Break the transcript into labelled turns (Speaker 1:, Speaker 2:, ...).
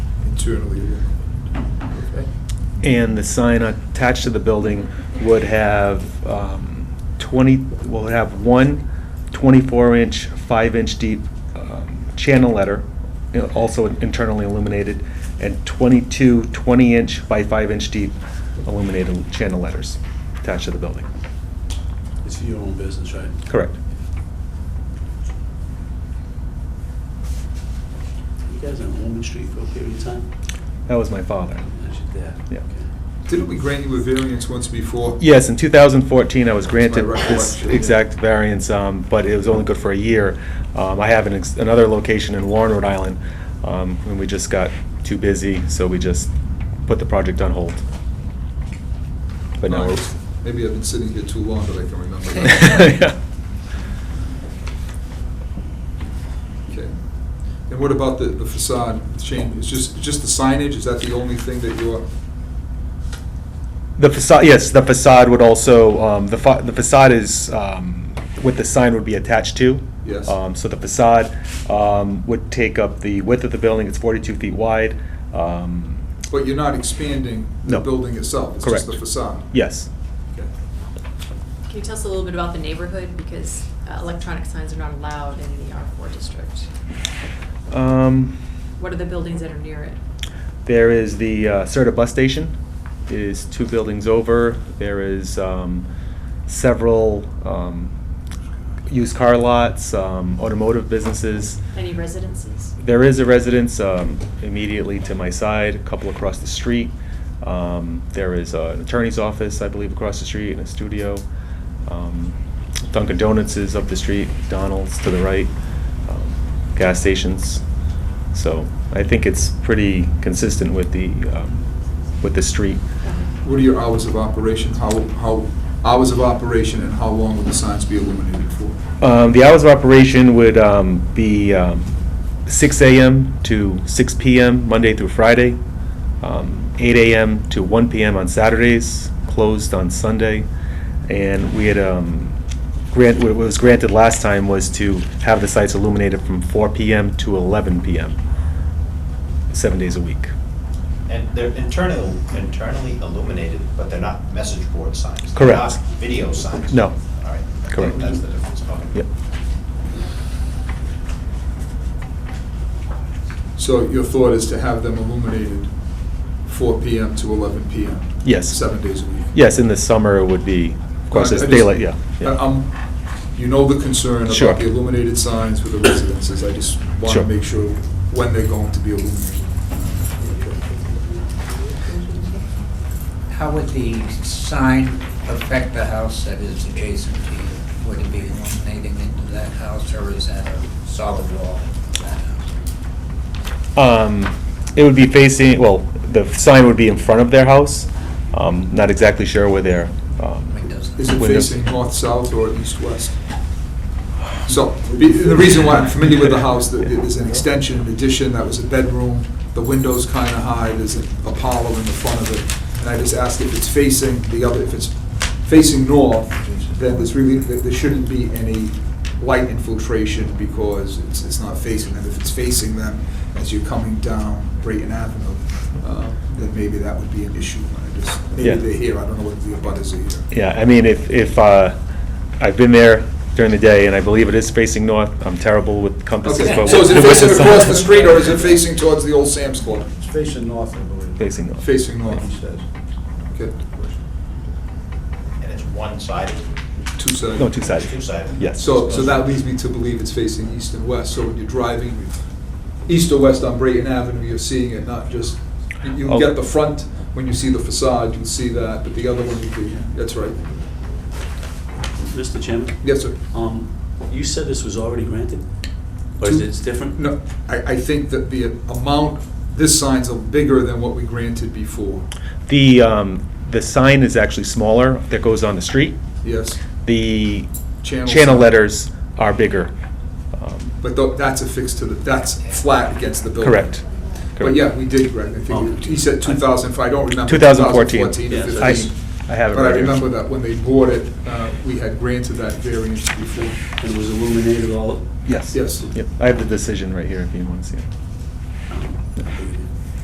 Speaker 1: internally. Okay.
Speaker 2: And the sign attached to the building would have um, 20, will have one 24-inch, 5-inch deep um, channel letter, you know, also internally illuminated, and 22 20-inch by 5-inch deep illuminated channel letters attached to the building.
Speaker 3: It's your own business, right?
Speaker 2: Correct.
Speaker 3: You guys on Holman Street for a period of time?
Speaker 2: That was my father.
Speaker 3: That's your dad?
Speaker 2: Yeah.
Speaker 3: Okay.
Speaker 1: Didn't we grant you a variance once before?
Speaker 2: Yes, in 2014, I was granted
Speaker 1: That's my
Speaker 2: this
Speaker 1: recollection.
Speaker 2: exact variance, um, but it was only good for a year. Um, I have an ex- another location in Warren, Rhode Island, um, and we just got too busy, so we just put the project on hold. But now
Speaker 1: Alright. Maybe I've been sitting here too long, but I can remember
Speaker 2: we're...
Speaker 1: that.
Speaker 2: Yeah.
Speaker 1: Okay. And what about the the facade change? It's just, it's just the signage? Is that the only thing that you're,
Speaker 2: The facade, yes, the facade would also, um, the fa- the facade is um, what the sign would be attached to.
Speaker 1: Yes.
Speaker 2: Um, So the facade um, would take up the width of the building, it's 42 feet wide. Um,
Speaker 1: but you're not expanding the
Speaker 2: No.
Speaker 1: building itself? It's just
Speaker 2: Correct.
Speaker 1: the facade?
Speaker 2: Yes.
Speaker 1: Okay.
Speaker 4: Can you tell us a little bit about the neighborhood, because uh, electronic signs are not allowed in the R4 district?
Speaker 2: Um,
Speaker 4: What are the buildings that are near it?
Speaker 2: There is the uh, Serta Bus Station, is two buildings over. There is um, several um, used car lots, um, automotive businesses.
Speaker 4: Any residences?
Speaker 2: There is a residence um, immediately to my side, a couple across the street. Um, There is uh, an attorney's office, I believe, across the street, and a studio. Um, Dunkin' Donuts is up the street, Donald's to the right, um, gas stations. So I think it's pretty consistent with the, um, with the street.
Speaker 1: What are your hours of operation? How, how, hours of operation and how long will the signs be illuminated for?
Speaker 2: Um, The hours of operation would um, be um, 6 AM to 6 PM, Monday through Friday, um, 8 AM to 1 PM on Saturdays, closed on Sunday. And we had, um, grant, what was granted last time was to have the sites illuminated from 4 PM to 11 PM, seven days a week.
Speaker 5: And they're internal, internally illuminated, but they're not message board signs. They're
Speaker 2: Correct.
Speaker 5: not Video signs.
Speaker 2: No.
Speaker 5: All right. I think
Speaker 2: Correct.
Speaker 5: That's the difference, okay.
Speaker 2: Yep.
Speaker 1: So your thought is to have them illuminated 4 PM to 11 PM?
Speaker 2: Yes.
Speaker 1: Seven days a week?
Speaker 2: Yes, in the summer it would be, of course,
Speaker 1: I-
Speaker 2: it's
Speaker 1: I just-
Speaker 2: daylight, yeah. yeah.
Speaker 1: I- I'm- You know the concern
Speaker 2: Sure.
Speaker 1: about the illuminated signs for the residences. I just want to
Speaker 2: Sure.
Speaker 1: make sure when they're going to be illuminated.
Speaker 6: How would the sign affect the house that is adjacent to you? Would it be illuminating into that house, or is that a solid wall? to that house?
Speaker 2: Um, It would be facing, well, the sign would be in front of their house. Um, Not exactly sure where their, um,
Speaker 6: I mean, does-
Speaker 1: Is it
Speaker 2: Window.
Speaker 1: facing north-south or east-west? So, be- the reason why I'm familiar with the house, that it is an extension, an addition, that was a bedroom, the window's kind of high, there's an Apollo in the front of it, and I just asked if it's facing the other, if it's facing north, then there's really, there there shouldn't be any light infiltration because it's, it's not facing them. If it's facing them as you're coming down Brayton Avenue, uh, then maybe that would be an issue. I just,
Speaker 2: Yeah.
Speaker 1: maybe they're here, I don't know what the abutters are here.
Speaker 2: yeah, I mean, if, if, uh, I've been there during the day, and I believe it is facing north. I'm terrible with compasses,
Speaker 1: Okay,
Speaker 2: but...
Speaker 1: so is it
Speaker 2: with the
Speaker 1: facing
Speaker 2: sign-
Speaker 1: across the street or is it facing towards the old Sam's Club?
Speaker 3: It's facing north, I believe.
Speaker 2: Facing north.
Speaker 1: Facing
Speaker 3: He
Speaker 1: north,
Speaker 3: says.
Speaker 1: okay,
Speaker 5: And it's one-sided,
Speaker 1: two-sided.
Speaker 2: No, two-sided.
Speaker 5: two-sided.
Speaker 2: Yes.
Speaker 1: So, so that leads me to believe it's facing east and west, so when you're driving east or west on Brayton Avenue, you're seeing it, not just, you- you
Speaker 2: Oh.
Speaker 1: get the front, when you see the facade, you'll see that, but the other one, you can, that's right.
Speaker 3: Mr. Chairman?
Speaker 1: Yes, sir.
Speaker 3: Um, you said this was already granted? Or is
Speaker 1: Two-
Speaker 3: it different?
Speaker 1: No, I, I think that the amount, this sign's a bigger than what we granted before,
Speaker 2: The, um, the sign is actually smaller that goes on the street.
Speaker 1: yes?
Speaker 2: The
Speaker 1: Channel
Speaker 2: channel
Speaker 1: sign.
Speaker 2: letters are bigger. Um,
Speaker 1: But tho- that's affixed to the, that's flat against the building.
Speaker 2: Correct.
Speaker 1: But
Speaker 2: Correct.
Speaker 1: yeah, we did, Greg, I think, he said 2005, I don't remember.
Speaker 2: 2014.
Speaker 1: 2014 or
Speaker 3: Yes.
Speaker 2: I,
Speaker 1: 15.
Speaker 2: I have it
Speaker 1: But I
Speaker 2: right here.
Speaker 1: remember that when they bought it, uh, we had granted that variance before.
Speaker 3: And it was illuminated all?
Speaker 2: Yes.
Speaker 1: Yes.
Speaker 2: Yep, I have the decision right here if you want to see it.
Speaker 3: Oh, I figured